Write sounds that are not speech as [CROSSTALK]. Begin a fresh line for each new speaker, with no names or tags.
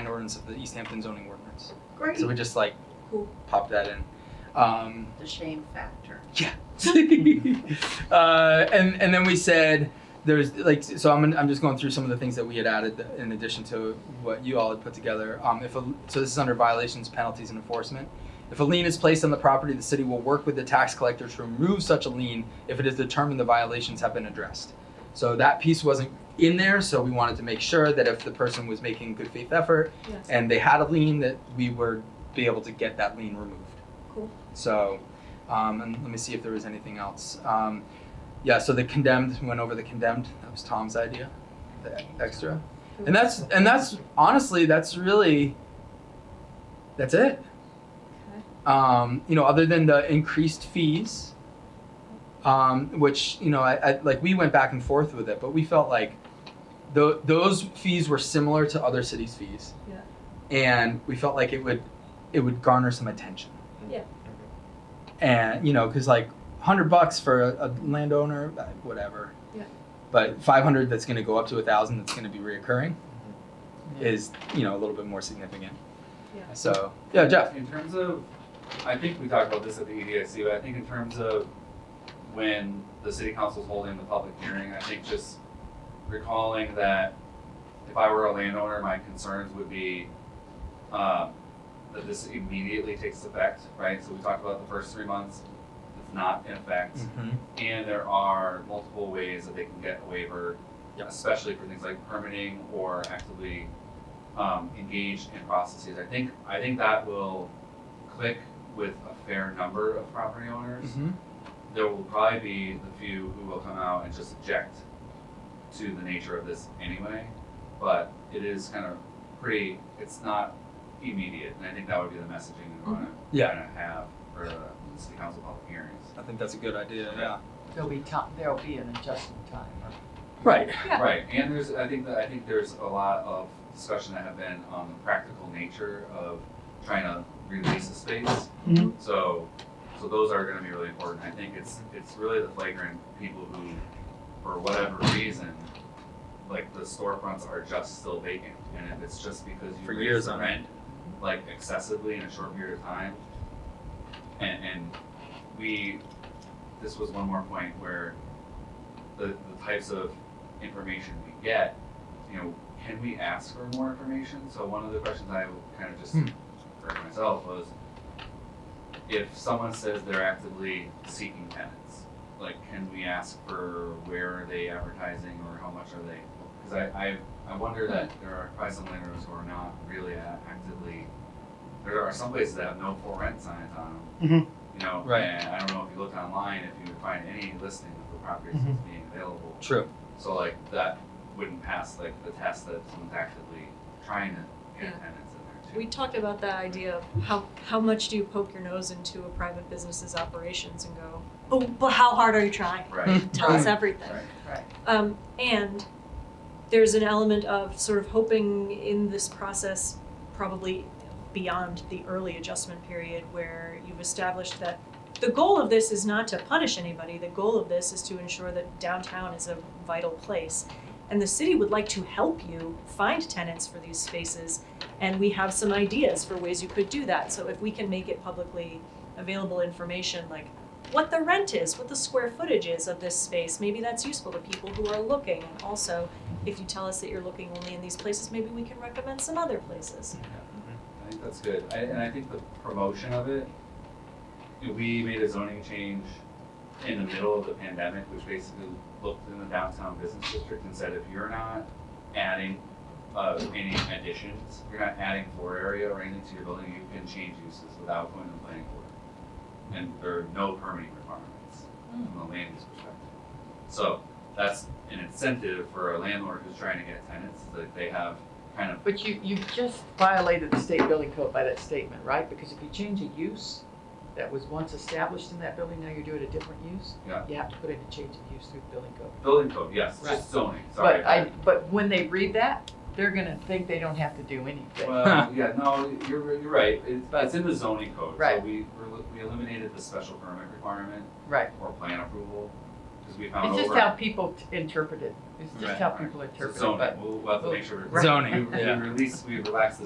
an ordinance of the East Hampton zoning ordinance.
Great.
So we just like
Cool.
pop that in. Um, [LAUGHS]
The shame factor.
uh, and and then we said there's like so I'm I'm just going through some of the things that we had added in addition to what you all had put together. Um, if a, so, this is under violations, penalties, and enforcement. If a lien is placed on the property, the city will work with the tax collector to remove such a lien if it is determined the violations have been addressed. So that piece wasn't in there, so we wanted to make sure that if the person was making good faith effort
Yes.
and they had a lien, that we were be able to get that lien removed.
Cool.
So, um, and let me see if there was anything else. Um, yeah, so the condemned we went over the condemned. That was Tom's idea, the e- extra, and that's and that's honestly that's really that's it. Um, you know, other than the increased fees, um, which you know, I, I like we went back and forth with it, but we felt like tho- those fees were similar to other cities' fees,
Yeah.
and we felt like it would it would garner some attention
Yeah.
and you know because like 100 bucks for a, a landowner uh, whatever
Yeah.
but 500 that's going to go up to a thousand that's going to be reoccurring is you know a little bit more significant
Yeah.
so yeah jeff
In terms of, I think we talked about this at the EDIC, but I think in terms of when the city council's holding the public hearing, I think just recalling that if I were a landowner, my concerns would be, um, that this immediately takes effect, right? So we talked about the first three months, it's not in effect.
Mm-hmm.
And there are multiple ways that they can get a waiver,
Yep.
especially for things like permitting or actively um, engaged in processes. I think, I think that will click with a fair number of property owners.
Mhm.
There will probably be the few who will come out and just object to the nature of this anyway, but it is kind of pretty, it's not immediate, and I think that would be the messaging we wanna,
Mm-hmm. Yeah.
kinda have for the city council public hearings.
i think that's a good idea yeah
Yeah.
There'll be time, there'll be an adjustment time.
right
Yeah.
Right, and there's, I think that, I think there's a lot of discussion that have been on the practical nature of trying to release the space.
Mhm.
So, so those are gonna be really important, I think it's, it's really the flagrant people who, for whatever reason, like the storefronts are just still vacant, and if it's just because you
For
raise
years
the
on
rent, like excessively in a short period of time, and, and we, this was one more point where the, the types of information we get, you know, can we ask for more information? So one of the questions I kind of just
Hmm.
for myself was, if someone says they're actively seeking tenants, like, can we ask for where are they advertising or how much are they? Because I, I, I wonder that
Hmm.
there are probably some landlords who are not really a- actively, there are some places that have no for rent signs on them. You know,
Mm-hmm. Right.
and I don't know if you looked online, if you would find any listing of the properties that's
Mm-hmm.
being available.
true
So like that wouldn't pass like the test that someone's actively trying to get
Yeah.
tenants in there too.
We talked about that idea of how, how much do you poke your nose into a private business's operations and go, oh, but how hard are you trying?
Right,
Tell us everything.
right.
Right.
Um, and there's an element of sort of hoping in this process, probably beyond the early adjustment period, where you've established that the goal of this is not to punish anybody. The goal of this is to ensure that downtown is a vital place. And the city would like to help you find tenants for these spaces. And we have some ideas for ways you could do that. So if we can make it publicly available information, like what the rent is, what the square footage is of this space. Maybe that's useful to people who are looking. And also, if you tell us that you're looking only in these places, maybe we can recommend some other places.
I think that's good. I, and I think the promotion of it, you know, we made a zoning change in the middle of the pandemic, which basically looked in the downtown business district and said, if you're not adding uh, any additions, you're not adding floor area or anything to your building, you can change uses without going to the planning board. And there are no permitting requirements from a land use perspective. So that's an incentive for a landlord who's trying to get tenants, that they have kind of
But you, you just violated the state building code by that statement, right? Because if you change a use that was once established in that building, now you're doing a different use.
Yeah.
You have to put in a change of use through the building code.
Building code, yes,
Right.
just zoning, sorry.
But I, but when they read that, they're gonna think they don't have to do anything. [LAUGHS]
Well, yeah, no, you're, you're right, it's, it's in the zoning code, so
Right.
we, we're li- we eliminated the special permit requirement
Right.
or plan approval, because we found
It's
over.
just how people t- interpret it. It's
Right.
just how people
So
interpret it, but.
zoning, we'll, we'll have to make sure. [LAUGHS] we-
Zoning,
We, we
yeah.
release, we relax the